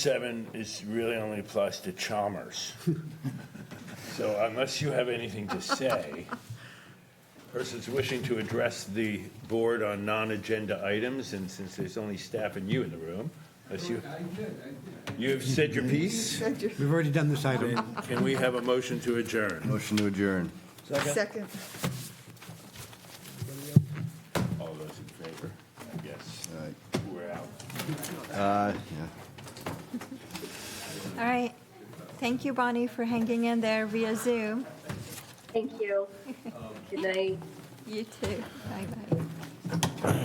seven is really only applies to Chalmers. So unless you have anything to say, persons wishing to address the board on non-agenda items, and since there's only staff and you in the room, unless you, you have said your piece, We've already done this item. can we have a motion to adjourn? Motion to adjourn. Second. All those in favor? Yes, All right. we're out. Uh, yeah. All right. Thank you, Bonnie, for hanging in there via Zoom. Thank you. Good night. You too. Bye-bye.